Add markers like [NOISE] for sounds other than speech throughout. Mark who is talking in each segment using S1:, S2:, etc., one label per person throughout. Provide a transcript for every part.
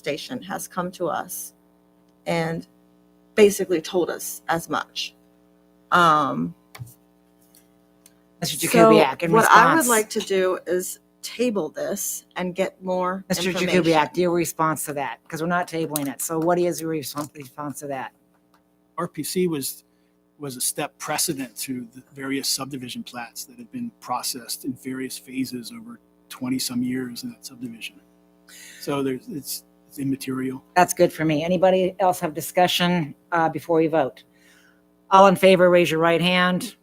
S1: station has come to us and basically told us as much. Um,
S2: Mr.
S1: so
S2: Jakubiec, in
S1: what I would
S2: response,
S1: like to do is table this and get more
S2: Mr.
S1: information.
S2: Jakubiec, your response to that, because we're not tabling it. So what is your response, response to that?
S3: RPC was, was a step precedent to the various subdivision plats that have been processed in various phases over 20-some years in that subdivision. So there's, it's it's immaterial.
S2: That's good for me. Anybody else have discussion uh, before we vote? All in favor, raise your right hand.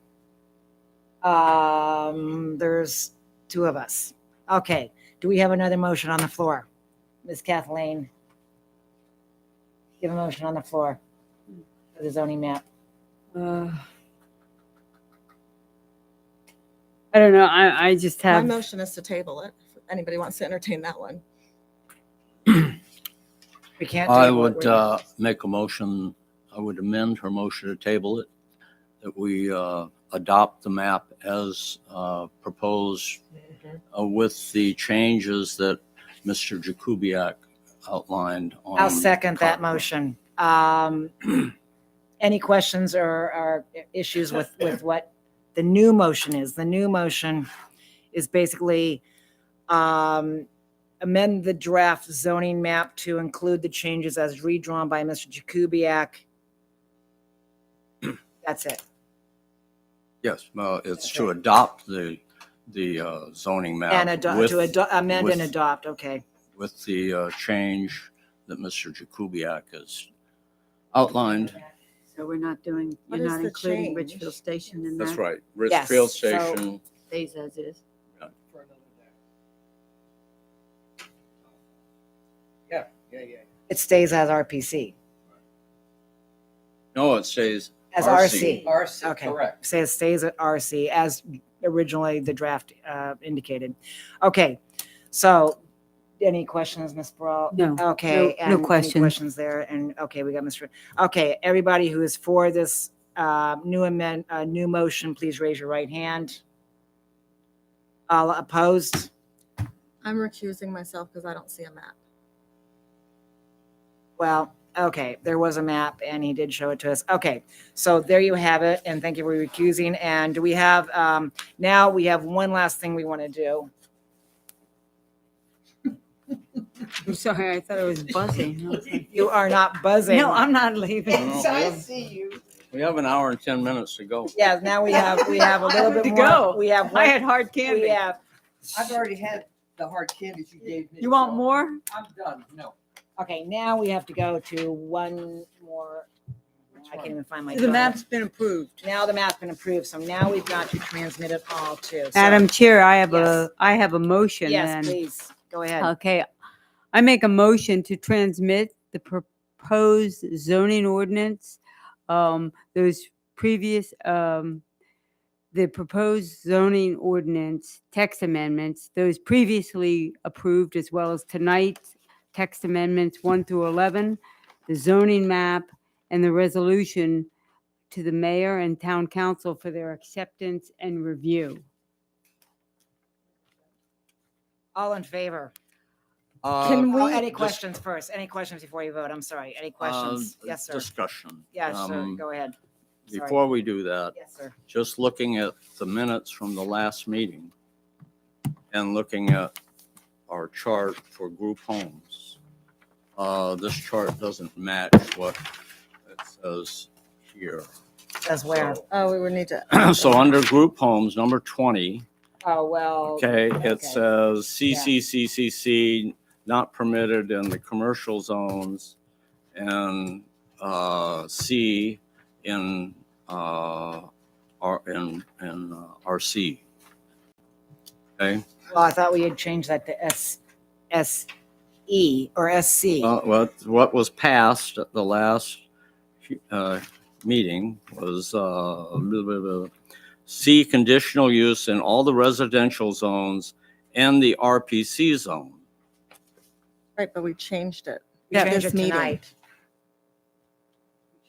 S2: Um, There's two of us. Okay, do we have another motion on the floor? Ms. Kathleen? Give a motion on the floor for the zoning map.
S4: Uh, I don't know. I, I just
S1: My
S4: have.
S1: motion is to table it. If anybody wants to entertain that one.
S2: We can't.
S5: I
S2: table it.
S5: would
S2: We're-
S5: uh, make a motion, I would amend her motion to table it, that we uh, adopt the map as uh, proposed uh, with the changes that Mr. Jakubiec outlined on.
S2: I'll second that
S5: Concom.
S2: motion. Um, [CLEARS THROAT] Any questions or, or issues with,
S5: [CLEARS THROAT]
S2: with what the new motion is? The new motion is basically um, amend the draft zoning map to include the changes as redrawn by Mr. Jakubiec. [CLEARS THROAT] That's it.
S5: Yes, well, it's to adopt the, the uh, zoning map.
S2: And ado-
S5: with-
S2: to ado- amend and
S5: with-
S2: adopt, okay.
S5: With the uh, change that Mr. Jakubiec has outlined.
S6: So we're not doing,
S1: What
S6: you're
S1: is
S6: not
S1: the
S6: including
S1: change?
S6: Richfield Station in that?
S5: That's right.
S2: Uh-huh. Yes,
S5: Richfield
S2: so-
S5: Station.
S6: Stays as is.
S7: Yeah, yeah, yeah.
S2: It stays as RPC,
S5: No, it says
S2: as RC.
S5: RC.
S7: RC,
S2: Okay.
S7: correct.
S2: says stays at RC as originally the draft uh, indicated. Okay, so any questions, Ms. Brawl?
S6: No,
S2: Okay.
S6: no
S2: and any
S6: questions.
S2: Questions there, and, okay, we got Mr. Okay, everybody who is for this uh, new amend, uh, new motion, please raise your right hand. All opposed?
S1: I'm recusing myself because I don't see a map.
S2: Well, okay, there was a map and he did show it to us. Okay, so there you have it, and thank you for recusing. And do we have, um, now we have one last thing we want to do.
S6: I'm sorry, I thought it was [LAUGHS] buzzing. I was like,
S2: You are not buzzing.
S6: No, I'm not leaving.
S5: Yes, I see you. We have an hour and 10 minutes to go.
S2: Yeah, now we have, we have a little bit
S6: To
S2: more.
S6: go.
S2: We have,
S6: I
S2: one-
S6: had hard
S2: we
S6: candy.
S2: have,
S7: I've already had the hard candies you gave me.
S6: You want
S7: so
S6: more?
S7: I'm done, no.
S2: okay, now we have to go to one more. I can't even find my.
S4: The
S2: document.
S4: map's been approved.
S2: Now the map's been approved, so now we've got to transmit it all to. so-
S6: Madam Chair, I have
S2: Yes.
S6: a, I have a motion
S2: Yes,
S6: then.
S2: please, go ahead.
S6: Okay, I make a motion to transmit the proposed zoning ordinance, um, those previous, um, the proposed zoning ordinance, text amendments, those previously approved as well as tonight's text amendments one through eleven, the zoning map, and the resolution to the mayor and town council for their acceptance and review.
S2: All in favor?
S5: Uh,
S2: Can we? Any
S5: dis-
S2: questions first? Any questions before you vote? I'm sorry. Any questions?
S5: uh,
S2: Yes, sir.
S5: Discussion.
S2: Yes, sir.
S5: Um,
S2: Go ahead. Sorry.
S5: Before we do that,
S2: Yes, sir.
S5: just looking at the minutes from the last meeting and looking at our chart for group homes, uh, this chart doesn't match what it says here. [CLEARS THROAT]
S2: Says where?
S5: So-
S1: Oh, we would need to.
S5: [CLEARS THROAT] So under group homes, number 20,
S2: Oh, well.
S5: Okay,
S2: Okay.
S5: it says CCCCC, not permitted in the commercial zones, and uh, C in, uh, R, in, in uh, RC. Okay,
S2: Well, I thought we had changed that to S, S E or SC.
S5: Uh, what, what was passed at the last uh, meeting was uh, blah, blah, blah. C conditional use in all the residential zones and the RPC zone.
S1: Right, but we changed it.
S2: We
S1: Yeah,
S2: change
S1: this
S2: it
S1: meeting.
S2: tonight.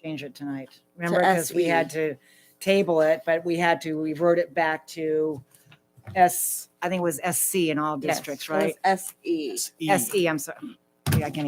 S2: Change it tonight. Remember, because we
S1: SE.
S2: had to table it, but we had to revert it back to S, I think it was SC in all
S6: Yes,
S2: districts,
S1: It E. was
S2: right?
S1: SE.
S3: E.
S2: SE, I'm sorry. Yeah, I can't